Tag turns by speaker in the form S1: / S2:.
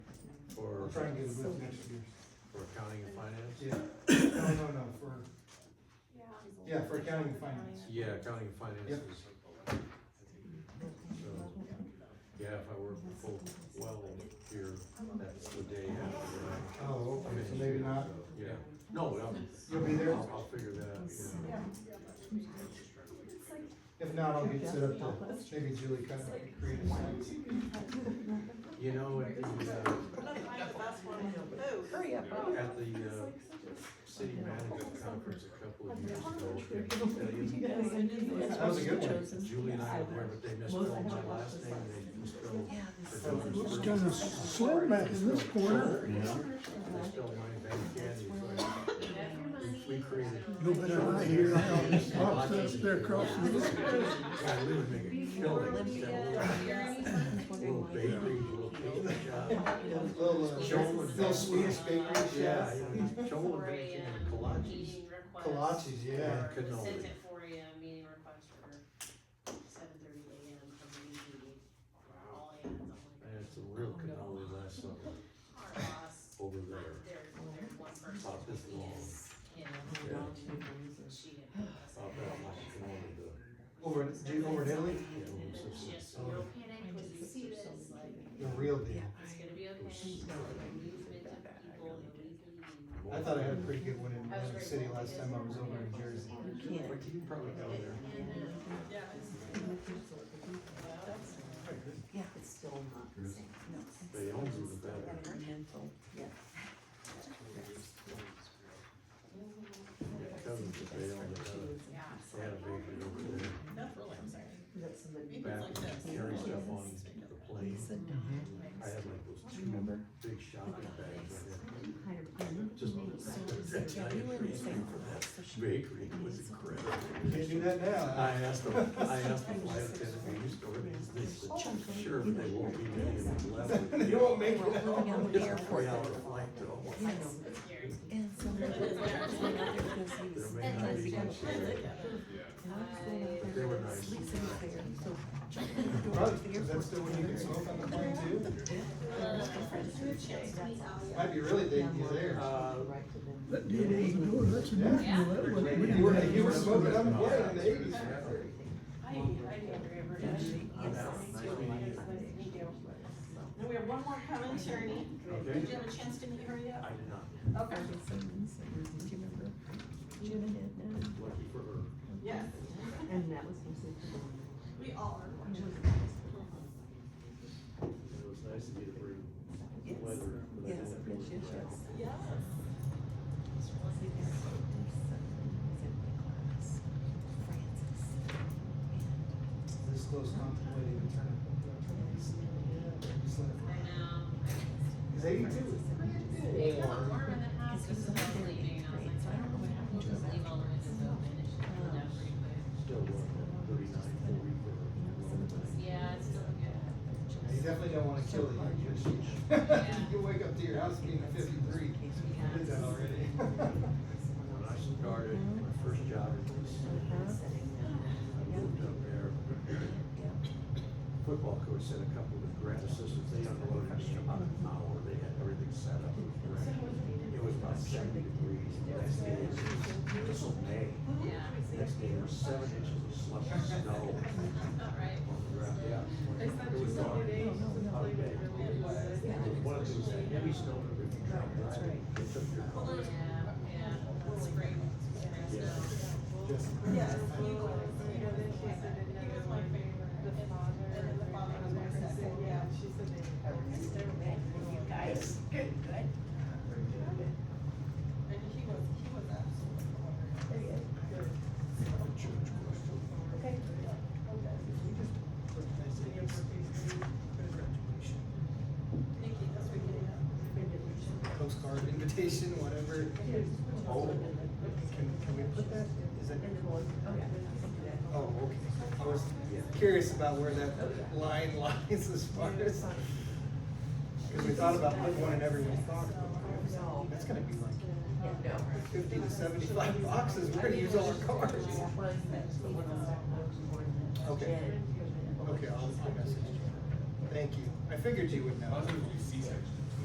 S1: We're trying to get it with next year.
S2: for accounting and finance?
S1: Yeah, no, no, no, for,
S3: Yeah.
S1: yeah, for accounting and finance.
S2: Yeah, accounting and finance
S1: Yep.
S2: is. So, yeah, if I work the full well here, that's the day after.
S1: Oh,
S2: I
S1: okay, so
S2: finish
S1: maybe
S2: here,
S1: not,
S2: so, Yeah, no, I'll,
S1: you'll be there?
S2: I'll, I'll figure that out, yeah.
S1: If not, I'll get set up to, maybe Julie kind of create a site.
S2: You know, at the, uh,
S4: Oh, hurry up.
S2: at the, uh, city management conference a couple of years ago,
S1: That was a good one.
S2: Julie and I were there, but they misspelled my last name, they misspelled. her
S5: Looks
S2: daughter's
S5: kinda
S2: first name.
S5: slim back in this corner.
S2: They spelled mine bad candy, so I- we created.
S5: No better than I hear, I got this box up there across the.
S2: Yeah, I live in a building, so a little bakery, a little cake shop.
S1: Little, uh, little Swedish bakery
S2: Yeah,
S1: shop,
S2: you know, Joel and Benji and collages.
S6: Meeting request.
S1: kolaches, yeah.
S6: or
S2: Cannoli.
S6: Sent at four AM, meeting request for seven thirty AM for the meeting. All hands on
S2: I had some real cannoli last summer
S6: our boss,
S2: over there,
S6: there, there's one person
S2: About this
S6: who
S2: long.
S6: is, you
S2: Yeah.
S6: know, she didn't. put us
S2: I'll
S6: in.
S2: bet I'm like cannoli, the,
S1: Over, in- do you over in Italy,
S2: yeah, when it's just-
S6: She has no panic, when you see this, like,
S1: the real deal.
S6: it's gonna be okay,
S2: Yeah.
S6: the movement of people, the weekly.
S1: I thought I had a pretty good one in Atlantic City last time I was over in Jersey.
S2: But you probably go there.
S4: Yeah, it's still not the same.
S2: They own you the better.
S4: Mental, yeah.
S2: Yeah, cousins, but they own the better.
S6: Yeah.
S2: They had a bakery over there.
S7: That's really, I'm sorry.
S4: That's somebody.
S2: Back when you carry stuff on the plane, I had like those two big shopping bags. I had Just that giant freeze thing for that bakery was incredible.
S1: Can't do that
S2: I
S1: now.
S2: asked them, I asked the flight attendant, "Are you storing these?" They said, "Sure, but they won't be ready in less than."
S1: You won't make it out.
S4: Living on
S2: It's
S4: the
S2: a
S4: airport.
S2: three-hour flight though.
S4: Yes.
S6: Scary.
S4: And somebody was like, "Oh, because he was-
S2: There may not be much there.
S4: And I was
S2: But
S4: going up there,
S2: they were
S4: and
S2: nice.
S4: Lisa was there, so John was going to
S1: Probably,
S4: the
S1: is that
S4: airport.
S1: still when you can smoke on the plane too?
S4: That's
S1: Might be really dangerous there.
S2: Uh,
S4: all. Right to them.
S5: That deal was good, that's a new deal, that was. we
S1: You were,
S5: didn't
S1: you were
S5: have-
S1: smoking on the plane in the eighties.
S7: I, I never ever.
S2: I'm out. Nice meeting you.
S7: And we have one more coming, Tierney.
S2: Okay.
S7: Did you have a chance to meet her
S2: I
S7: yet?
S2: did not,
S7: Okay,
S4: Do you remember? Jim and Edna.
S2: lucky for her.
S7: yes,
S4: And that was mostly for them.
S7: we all are.
S2: It was nice to get a break.
S4: Yes.
S2: Weather, but I
S4: Yes,
S2: didn't have to
S4: yes,
S2: work
S4: yes,
S2: around.
S4: yes.
S7: Yes.
S1: This close contemplating the turn. Just let it-
S6: I know.
S1: He's eighty-two.
S6: They got warm in the house, just when I was leaving, I was like, I don't know what happened, Um, we'll just leave all the windows open, it should cool down pretty quick.
S2: Still working thirty-nine, forty for her.
S6: Yeah, it's still good.
S1: You definitely don't wanna kill the
S6: Yeah.
S1: young You wake up to your house being fifty-three. I Did that already.
S2: When I started, my first job was,
S4: Uh-huh.
S2: I moved up there. Football coach said a couple of grad assistants, they unloaded me in about an hour, they had everything set up. and ready. It was about seventy degrees, the next day it was, this was May,
S6: Yeah,
S2: the next day there was seven inches of slush and snow
S6: all right.
S2: on the ground, yeah. It was dark. Hot day. It was one of those heavy snow, that if you drop driving, it took your car.
S6: Yeah, yeah, spring, spring snow.
S1: Just-
S7: Yes, he was, you know, then she said, and he was my favorite. The father. And then the father was my second, yeah, she said they. You guys, good, good. And he was, he was absolutely hilarious. Good. Okay. Nikki, that's what you
S1: Postcard invitation, whatever. Oh, can, can we put that? Is that? Oh, okay. I was curious about where that line lies as far as. Cause we thought about putting one in everyone's pocket. That's gonna be like fifty to seventy-five boxes. We're gonna use all our cards. Okay. Okay, I'll, I'll message you. Thank you. I figured you would know.
S8: Other than C-section.